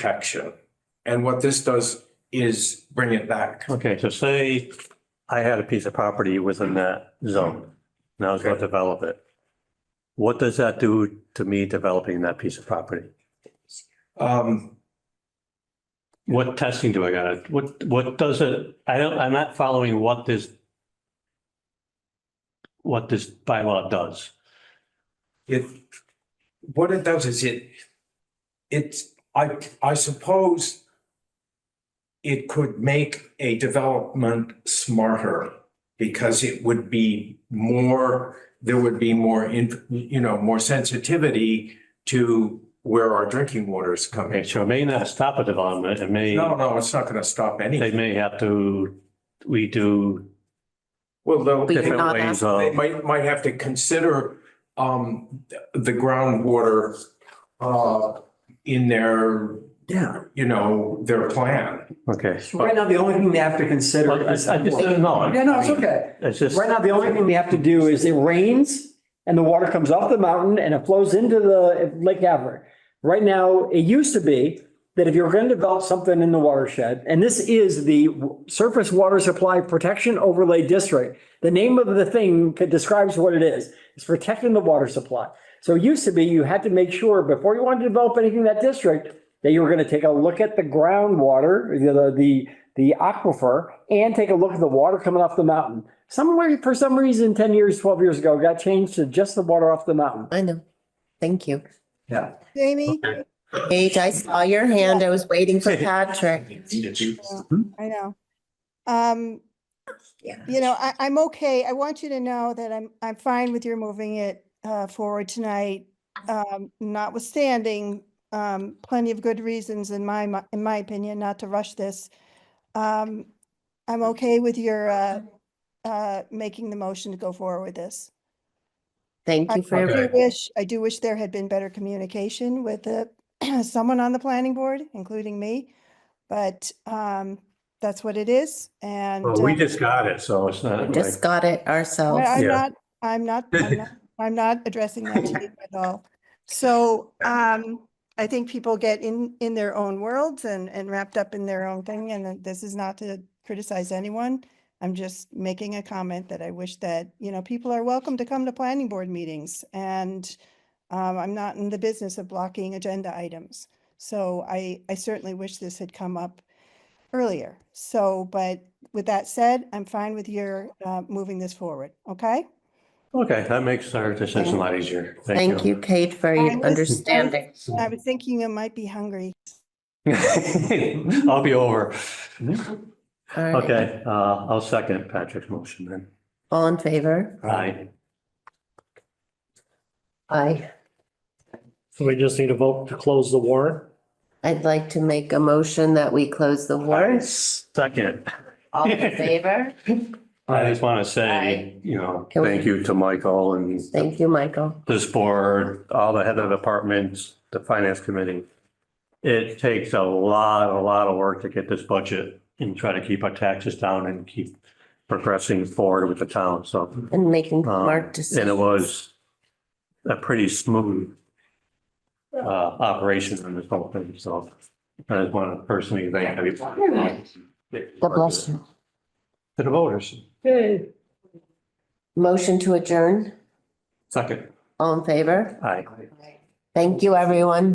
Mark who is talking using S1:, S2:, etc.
S1: protection. And what this does is bring it back.
S2: Okay, so say I had a piece of property within that zone, and I was going to develop it. What does that do to me developing that piece of property?
S1: Um,
S2: What testing do I gotta, what, what does it, I don't, I'm not following what this what this bylaw does.
S1: it, what it does is it, it's, I, I suppose it could make a development smarter because it would be more, there would be more, in you know, more sensitivity to where our drinking water is
S2: Okay,
S1: coming.
S2: so it may not stop a development, it may,
S1: No, no, it's not going to stop
S2: they
S1: anything.
S2: may have to redo
S1: Well, they'll.
S3: We
S1: they'll-
S2: different
S3: not
S2: ways
S1: They
S2: of,
S1: might, might have to consider um, the groundwater uh, in their,
S4: Yeah.
S1: you know, their plan.
S2: okay.
S4: Right now, the only thing they have to consider
S2: Well, I I
S4: is.
S2: just, no.
S4: Yeah, no, it's okay.
S2: It's just.
S4: Right now, the only thing they have to do is it rains and the water comes off the mountain and it flows into the Lake Havert. Right now, it used to be that if you're going to develop something in the watershed, and this is the Surface Water Supply Protection Overlay District. The name of the thing describes what it is. It's protecting the water supply. So it used to be you had to make sure before you wanted to develop anything in that district, that you were going to take a look at the groundwater, the, the, the aquifer, and take a look at the water coming off the mountain. Somewhere, for some reason, 10 years, 12 years ago, got changed to just the water off the mountain.
S3: I know. Thank you.
S4: Yeah.
S5: Jamie,
S3: Paige, I saw your hand. I was waiting for Patrick.
S5: I know. Um,
S3: Yeah.
S5: you know, I, I'm okay. I want you to know that I'm, I'm fine with your moving it, uh, forward tonight. Um, notwithstanding, um, plenty of good reasons in my, mi- in my opinion, not to rush this. Um, I'm okay with your, uh, uh, making the motion to go forward with this.
S3: Thank you for
S5: I
S3: your,
S5: do wish, I do wish there had been better communication with the, someone on the planning board, including me. But, um, that's what it is and.
S2: Well, we
S5: uh,
S2: just got it, so it's not like,
S3: just got it
S5: I-
S3: ourselves.
S5: I'm
S2: Yeah.
S5: not, I'm not, I'm not, I'm not addressing that to you at all. So, um, I think people get in, in their own worlds and, and wrapped up in their own thing, and then this is not to criticize anyone. I'm just making a comment that I wish that, you know, people are welcome to come to planning board meetings, and um, I'm not in the business of blocking agenda items. So I, I certainly wish this had come up earlier. So, but with that said, I'm fine with your uh, moving this forward, okay?
S2: okay, that makes our decision a lot easier.
S3: Thank you, Kate, for
S5: I
S3: your
S5: was-
S3: understanding.
S5: I was thinking you might be hungry.
S2: I'll be over.
S6: Mm-hmm.
S3: All right.
S2: Okay, uh, I'll second Patrick's motion then.
S3: All in favor?
S2: Aye.
S3: Aye.
S6: So we just need a vote to close the warrant?
S3: I'd like to make a motion that we close the warrant.
S2: Second.
S3: All in favor?
S2: I just want to
S3: Aye.
S2: say, you know,
S3: Can we-
S2: thank you to Michael and
S3: Thank you, Michael.
S2: this board, all the head of departments, the finance committee. It takes a lot, a lot of work to get this budget and try to keep our taxes down and keep progressing forward with the town, so.
S3: And making
S2: Um,
S3: smart
S2: And it
S3: decisions.
S2: was a pretty smooth uh, operation on this whole thing, so I just want to personally thank everybody.
S3: God bless you.
S2: To the voters.
S3: Motion to adjourn.
S2: Second.
S3: All in favor?
S2: Aye.
S3: Thank you, everyone.